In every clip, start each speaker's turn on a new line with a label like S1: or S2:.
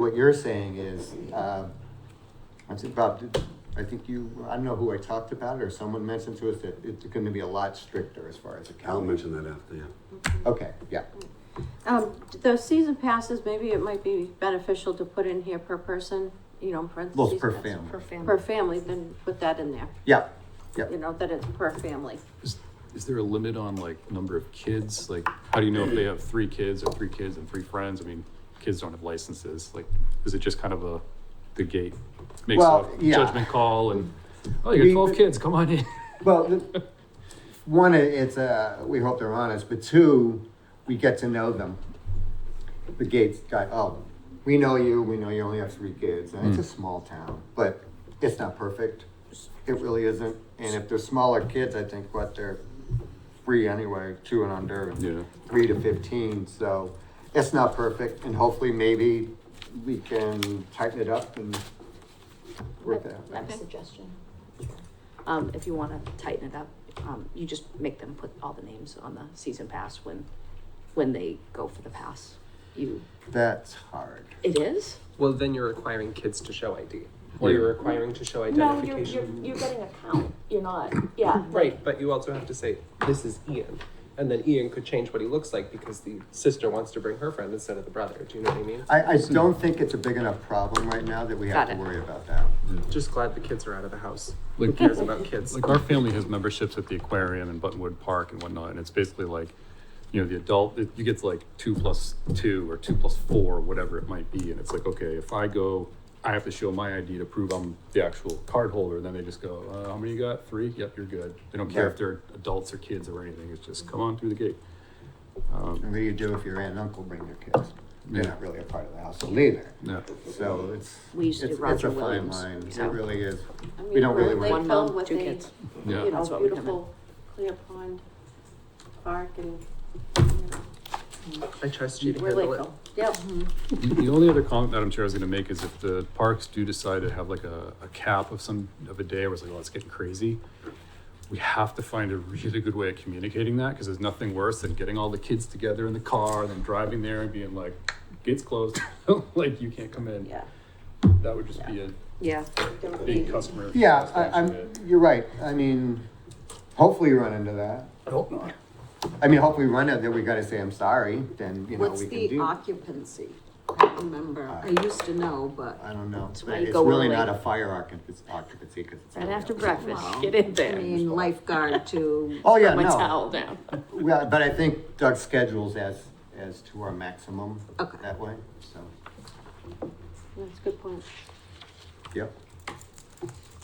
S1: what you're saying is, um, I think Bob, did- I think you, I don't know who I talked about it, or someone mentioned to us that it's gonna be a lot stricter as far as
S2: I'll
S1: accounting.
S2: mention that after, yeah.
S1: Okay, yeah,
S3: Um, the season passes, maybe it might be beneficial to put in here per person, you know, in
S1: well,
S3: parentheses.
S1: per
S3: that's-
S1: family,
S4: For family.
S3: Per family, then put that in there,
S1: yeah, yeah.
S3: you know, that it's per family.
S5: Is, is there a limit on like number of kids? Like, how do you know if they have three kids or three kids and three friends? I mean, kids don't have licenses. Like, is it just kind of a, the gate makes
S1: Well,
S5: a
S1: yeah.
S5: judgment call and, oh,
S1: We-
S5: you got twelve kids, come on in.
S1: Well, the- one, it- it's, uh, we hope they're honest, but two, we get to know them. The Gates guy, oh, we know you, we know you only have three kids, and it's a small town, but it's not perfect. It really isn't, and if they're smaller kids, I think what they're free anyway, two and under,
S5: Yeah.
S1: and three to fifteen, so it's not perfect, and hopefully maybe we can tighten it up and work that
S4: I
S1: out.
S4: have a suggestion. Um, if you wanna tighten it up, um, you just make them put all the names on the season pass when, when they go for the pass. You,
S1: That's hard.
S4: it is?
S6: Well, then you're requiring kids to show ID, or you're requiring to
S7: No,
S6: show
S7: you're, you're,
S6: identification.
S7: you're getting a count, you're not, yeah.
S6: Right, but you also have to say, this is Ian, and then Ian could change what he looks like because the sister wants to bring her friend instead of the brother, do you know what I mean?
S1: I, I don't think it's a big enough problem right now that we have
S4: Got
S1: to
S4: it.
S1: worry about that.
S6: Just glad the kids are out of the house. Who
S5: Like-
S6: cares about kids?
S5: Like, our family has memberships at the aquarium and Buttonwood Park and whatnot, and it's basically like, you know, the adult, it- you get to like two plus two or two plus four, whatever it might be, and it's like, okay, if I go, I have to show my ID to prove I'm the actual card holder, and then they just go, uh, how many you got? Three? Yep, you're good. They don't care if they're adults or kids or anything, it's just come on through the gate.
S1: And what do you do if your aunt and uncle bring their kids? They're not really a part of the household either.
S5: Yeah.
S1: So it's,
S4: We
S1: it's,
S4: used to do
S1: it's
S4: Roger
S1: a fine
S4: Williams.
S1: line. It
S4: so-
S1: really is.
S3: I
S1: We
S3: mean,
S1: don't really
S3: we're
S1: worry.
S4: One mom,
S3: Lakeville with
S4: two
S3: a,
S4: kids.
S5: Yeah.
S3: You
S4: That's
S3: know,
S4: what we come in.
S3: beautiful clear pond park and, you know,
S6: I trust you to
S3: we're
S6: handle it.
S3: Lakeville. Yep,
S4: Mm-hmm.
S5: The the only other comment, Madam Chair, I was gonna make is if the parks do decide to have like a, a cap of some, of a day where it's like, oh, it's getting crazy, we have to find a really good way of communicating that, because there's nothing worse than getting all the kids together in the car and then driving there and being like, gates closed, like you can't come in.
S3: yeah.
S5: That would just be a
S4: Yeah,
S3: There would
S5: big
S3: be-
S5: customer.
S1: Yeah, I,
S5: satisfaction
S1: I'm,
S5: hit.
S1: you're right. I mean, hopefully you run into that.
S6: I hope not.
S1: I mean, hopefully we run into that, we gotta say, I'm sorry, then, you know,
S8: What's
S1: we can
S8: the
S1: do.
S8: occupancy? I don't remember. I used to know, but
S1: I don't know.
S4: That's why you
S1: It's
S4: go
S1: really
S4: early.
S1: not a fire occupancy, occupancy, cause it's.
S4: right
S1: early
S4: after
S1: outside.
S4: breakfast, get in
S8: I
S4: there.
S8: mean, lifeguard to,
S1: Oh, yeah,
S4: Put My
S1: no.
S4: towel down.
S1: Well, but I think Doug schedules as, as to our maximum
S8: Okay.
S1: that way, so,
S3: That's a good point.
S1: yep.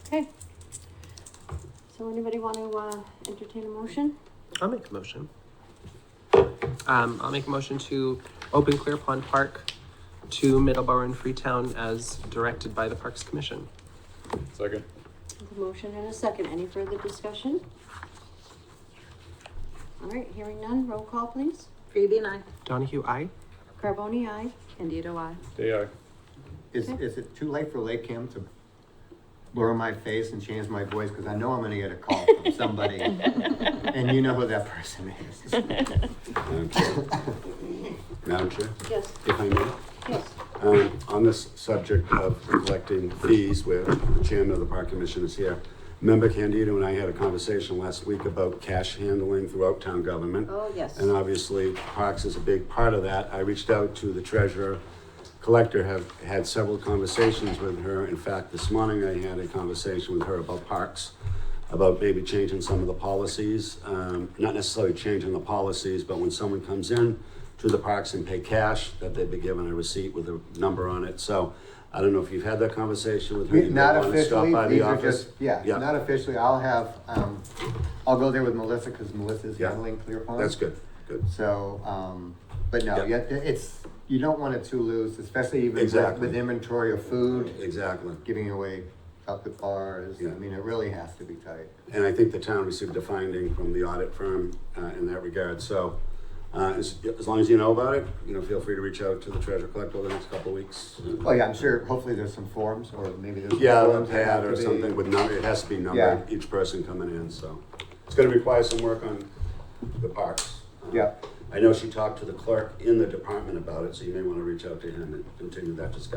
S3: Okay. So anybody want to, uh, entertain a motion?
S6: I'll make a motion. Um, I'll make a motion to open Clear Pond Park to Middleborough and Freetown as directed by the Parks Commission.
S5: Second.
S3: There's a motion and a second. Any further discussion? All right, hearing none. Roll call, please.
S8: Phoebe and I,
S6: Donahue, aye?
S3: Carboni, aye.
S4: Candido, I.
S5: Day I.
S1: Is, is it too late for Lake Kim to blur my face and change my voice? Because I know I'm gonna get a call from somebody, and you know who that person is.
S2: Madam Chair. Madam Chair,
S3: Yes,
S2: if I may.
S3: yes.
S2: Um, on this subject of collecting fees, where the chairman of the park commission is here, member Candido and I had a conversation last week about cash handling throughout town government.
S3: Oh, yes.
S2: And obviously, parks is a big part of that. I reached out to the treasurer, collector, have had several conversations with her. In fact, this morning I had a conversation with her about parks, about maybe changing some of the policies. Um, not necessarily changing the policies, but when someone comes in to the parks and pay cash, that they'd be given a receipt with a number on it. So I don't know if you've had that conversation with her. You
S1: Not
S2: might wanna stop
S1: officially,
S2: by the
S1: these are
S2: office.
S1: just, yeah, not officially, I'll have, um, I'll go there with Melissa, because Melissa's
S2: Yeah.
S1: handling Clear Pond.
S2: That's good, good.
S1: So, um, but no, yeah,
S2: Yeah.
S1: it's, you don't want it too loose, especially even with-
S2: Exactly.
S1: with inventory of food,
S2: Exactly.
S1: giving away chocolate bars, I
S2: Yeah.
S1: mean, it really has to be tight.
S2: And I think the town received a finding from the audit firm uh, in that regard. So uh, as, as long as you know about it, you know, feel free to reach out to the treasurer collector over the next couple of weeks.
S1: Oh, yeah, I'm sure, hopefully there's some forms, or maybe there's. some
S2: Yeah, a
S1: forms that have
S2: pad
S1: to
S2: or
S1: be-
S2: something with number, it has to be numbered,
S1: Yeah.
S2: each person coming in, so. It's gonna require some work on the parks. Uh,
S1: Yeah.
S2: I know she talked to the clerk in the department about it, so you may want to reach out to him and continue that discussion.